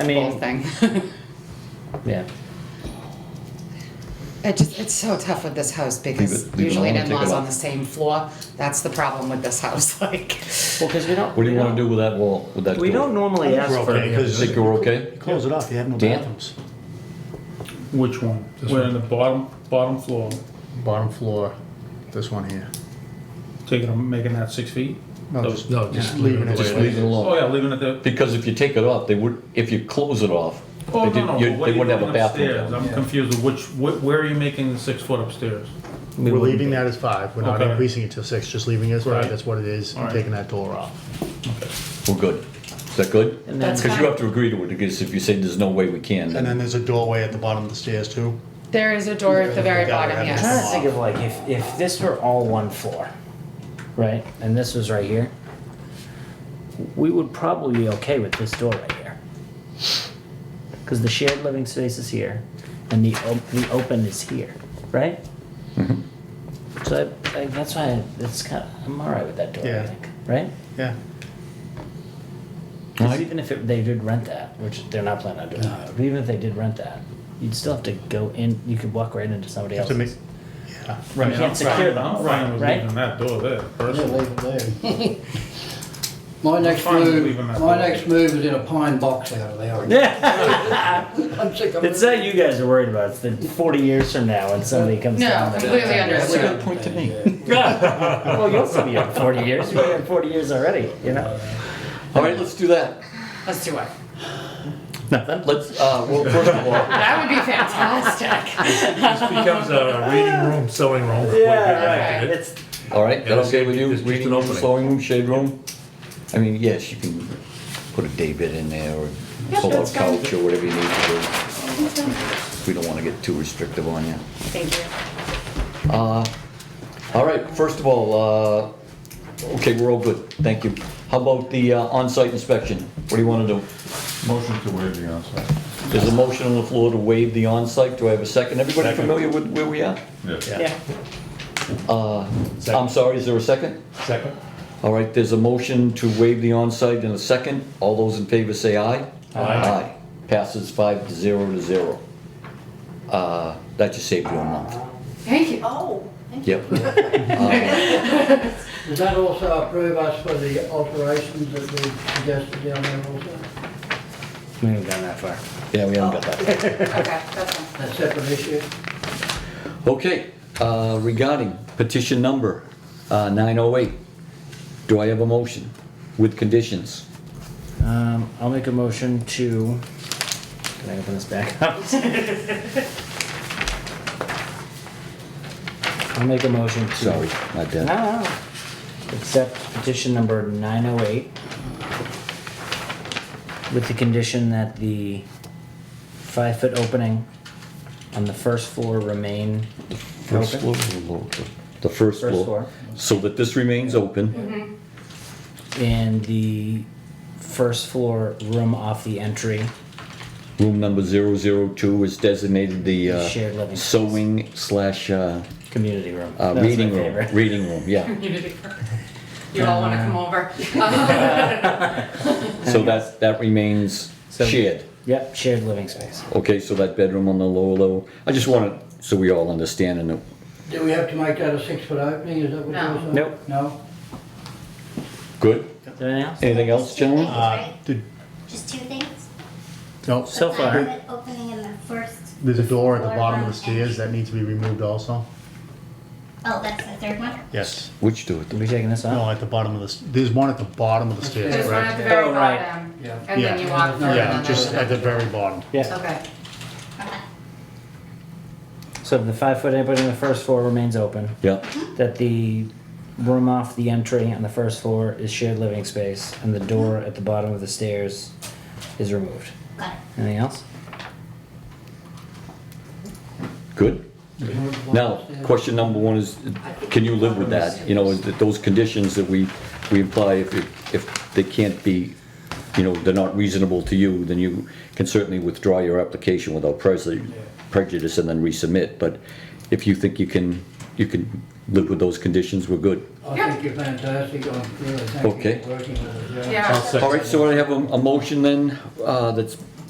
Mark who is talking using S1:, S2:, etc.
S1: I
S2: whole
S1: mean,
S2: thing.
S1: yeah.
S2: It just, it's so tough with this house because
S3: Leave it- leave it
S2: usually an
S3: alone, take it
S2: in-law's on
S3: off.
S2: the same floor. That's the problem with this house, like.
S1: Well, because we don't.
S3: What do you
S1: we
S3: want to do
S1: don't-
S3: with that wall, with that
S1: We
S3: door?
S1: don't normally
S4: I think
S1: ask
S4: we're
S1: for.
S4: okay.
S3: I Think you're okay?
S5: Close it off, you have no
S3: Dan?
S5: bathrooms.
S4: Which one?
S6: This
S4: We're
S6: one.
S4: in the bottom, bottom floor,
S6: Bottom floor, this one here.
S4: taking, them- making that six feet?
S5: No,
S4: Those-
S5: just-
S6: No, just
S5: Yeah.
S6: leaving it.
S3: Just
S6: the way it
S3: leave it
S6: is.
S3: alone.
S4: Oh, yeah, leaving it there.
S3: Because if you take it off, they would, if you close it off,
S4: Oh,
S3: they
S4: no, no,
S3: did- you-
S4: but what
S3: they
S4: are you
S3: wouldn't have a
S4: doing
S3: bathroom.
S4: upstairs?
S3: down.
S4: I'm confused with which, wh- where are you making the six foot upstairs?
S1: we
S6: We're
S1: wouldn't-
S6: leaving that as five, we're not
S4: Okay.
S6: increasing it to six, just leaving it as five,
S4: Right.
S6: that's what it is, and
S4: Alright.
S6: taking that door off.
S3: We're good. Is that good?
S1: And then,
S2: That's
S3: Because you have to agree to it, because if you say there's no way we can,
S6: And
S3: then
S6: then there's a doorway at the bottom of the stairs too.
S2: There is a door at the very
S6: Yeah,
S2: bottom,
S6: yeah.
S1: I'm trying
S2: yes.
S1: to think of like if if this were all one floor, right, and this was right here, we would probably be okay with this door right here, because the shared living space is here, and the op- the open is here, right? So I, I, that's why it's kind of, I'm all right with that door. I
S6: Yeah.
S1: think, right?
S6: Yeah.
S1: Because
S3: Right.
S1: even if it, they did rent that, which they're not planning on doing, that, but even if they did rent that, you'd still have to go in. You could walk right into somebody
S6: Have to
S1: else's.
S6: make, yeah.
S4: Right,
S1: can't secure them,
S4: I'm fine with
S1: right?
S4: leaving that door there, personally.
S7: My next
S4: fine with
S7: move,
S4: leaving that
S7: my
S4: door.
S7: next move is in a pine box out of there.
S1: Yeah.
S7: I'm sick of
S1: It's
S7: it.
S1: not you guys are worried about. It's the 40 years from now when somebody comes
S2: No,
S1: down. there.
S2: completely
S7: That's a
S2: understood.
S7: good point to me.
S1: well, you'll still be up 40 years. You've been here 40 years already, you know?
S3: all right, let's do that.
S2: Let's do it.
S3: Let's, uh, well, first of all,
S2: That would be fantastic.
S6: Becomes a reading room, sewing room.
S1: Yeah, right. It's,
S3: all right, that okay with you?
S6: There's just
S3: Reading
S6: an
S3: room,
S6: opening.
S3: sewing room, shade room? I mean, yes, you can put a day bed in there or pull a
S2: that's fine.
S3: couch or whatever you need to do. We don't want to get too restrictive on you. Uh,
S2: Thank you.
S3: All right, first of all, uh, okay, we're all good, thank you. How about the uh, on-site inspection? What do you want to do?
S4: Motion to waive the onsite.
S3: There's a motion on the floor to waive the on-site. do I have a second? Everybody familiar with where we are?
S1: yeah.
S3: I'm sorry, is there a second?
S6: Second.
S3: All right, there's a motion to waive the on-site and a second. All those in favor say aye. Aye. Passes five to zero to zero. Uh, That just saved you a month.
S2: Thank you.
S8: Oh, thank you.
S3: Yep.
S7: Does that also approve us for the alterations that we suggested down there also?
S1: We haven't gone that far.
S3: Yeah, we haven't got that.
S2: Okay, that's fine.
S7: A separate issue?
S3: Okay, uh, regarding petition number uh, 908, do I have a motion with conditions?
S1: Um, I'll make a motion to. Can I open this back up? I'll make a motion to.
S3: Sorry, my bad.
S1: No, no. Accept petition number 908 with the condition that the five-foot opening on the first floor remain
S3: First floor
S1: open.
S3: or lower floor? The first
S1: First
S3: floor.
S1: floor.
S3: So that this remains
S2: Mm-hmm.
S3: open,
S1: And the first floor room off the entry,
S3: room number 002 is designated the
S1: The shared
S3: uh,
S1: living space.
S3: sewing slash uh,
S1: community room.
S3: uh,
S1: That's my
S3: reading room,
S1: favorite.
S3: reading room, yeah.
S2: You all want to come over?
S3: So that, that remains
S1: So-
S3: shared.
S1: Yep, shared living space.
S3: Okay, so that bedroom on the lower level, I just want it so we all understand and know.
S7: Do we have to make that a six-foot opening, is that what
S2: No.
S7: you're saying?
S1: Nope.
S7: No?
S3: Good?
S1: Is there anything else?
S3: Anything else,
S8: Just two
S3: gentlemen?
S8: things,
S6: Uh,
S8: right?
S6: the-
S8: Just two things?
S6: no,
S1: So
S8: The
S1: far.
S8: private Opening in the first.
S6: there's a door at the
S8: floor
S6: bottom of
S8: room
S6: the stairs that
S8: entry.
S6: needs to be removed also.
S8: Oh, that's the third one?
S6: Yes.
S3: Which do it?
S1: Are we taking this
S6: No,
S1: off?
S6: at the bottom of the, s- there's one at the bottom of the stairs,
S2: There's one at
S6: correct?
S2: the very um,
S1: Oh, right.
S2: bottom.
S7: Yeah.
S2: And then you walk through and
S6: Yeah,
S2: then
S6: just at
S2: there's.
S6: the very bottom.
S1: Yeah,
S2: Okay.
S8: Okay.
S1: so the five-foot opening on the first floor remains open.
S3: Yeah.
S1: that the room off the entry on the first floor is shared living space and the door at the bottom of the stairs is removed.
S8: Got it.
S1: Anything else?
S3: Good. Now, question number one is, can you live with that? You know, is that those conditions that we, we apply, if, it- if they can't be, you know, they're not reasonable to you, then you can certainly withdraw your application without prejud- prejudice and then resubmit. But if you think you can, you can live with those conditions, we're good.
S2: Yeah.
S7: I think you're fantastic, I'm really
S3: Okay.
S7: thank you for working with us.
S2: Yeah.
S3: All right, so I have a, a motion then, uh, that's